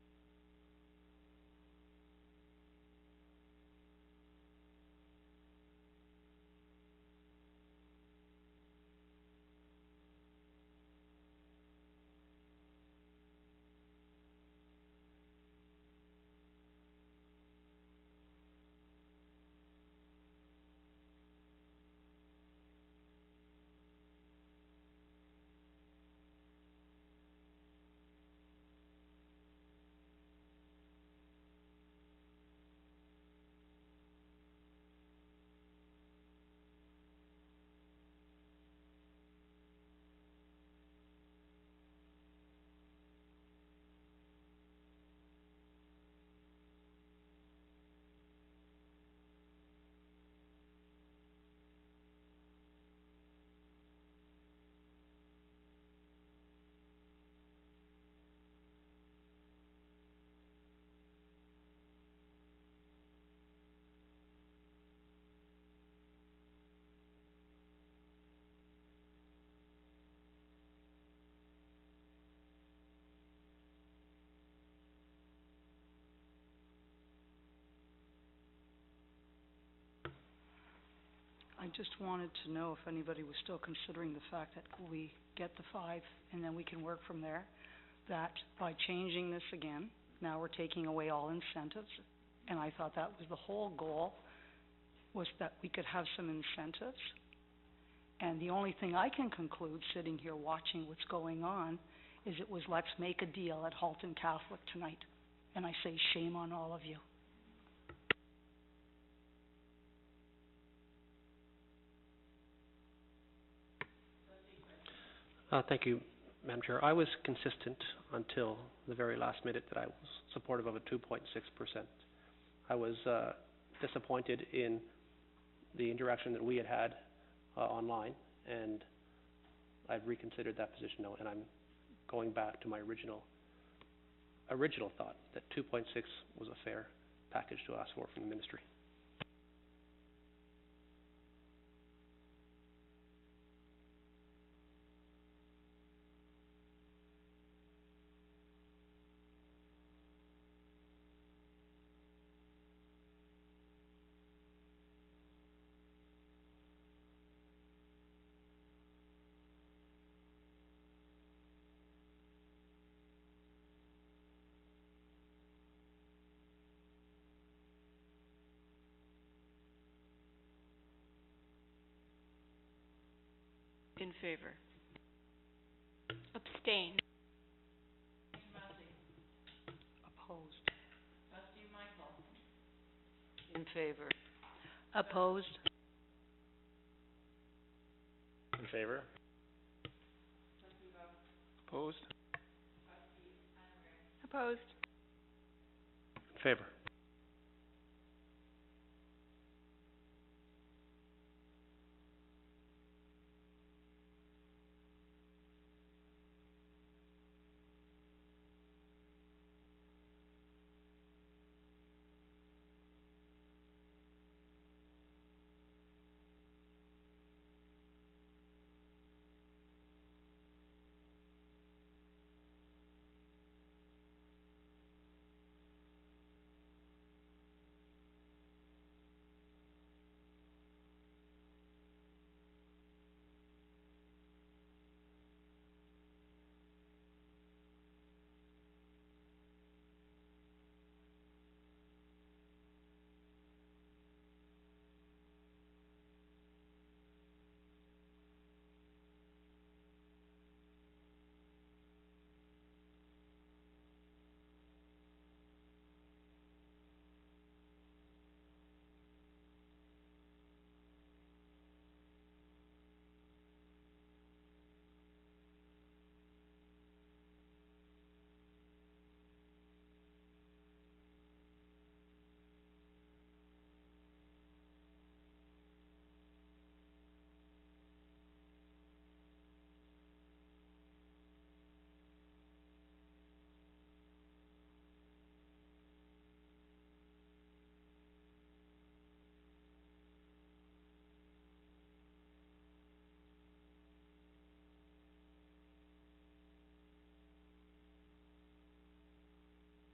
just wanted to know if anybody was still considering the fact that we get the five and then we can work from there. That by changing this again, now we're taking away all incentives. And I thought that was the whole goal, was that we could have some incentives. And the only thing I can conclude, sitting here watching what's going on, is it was let's make a deal at Halton Catholic tonight. And I say shame on all of you. Uh, thank you, Madam Chair. I was consistent until the very last minute that I was supportive of a two point six percent. I was, uh, disappointed in the interaction that we had had, uh, online, and I've reconsidered that position now, and I'm going back to my original, original thought, that two point six was a fair package to ask for from the ministry. In favor. Abstain. Opposed. In favor. Opposed? In favor? Opposed? Opposed. In favor.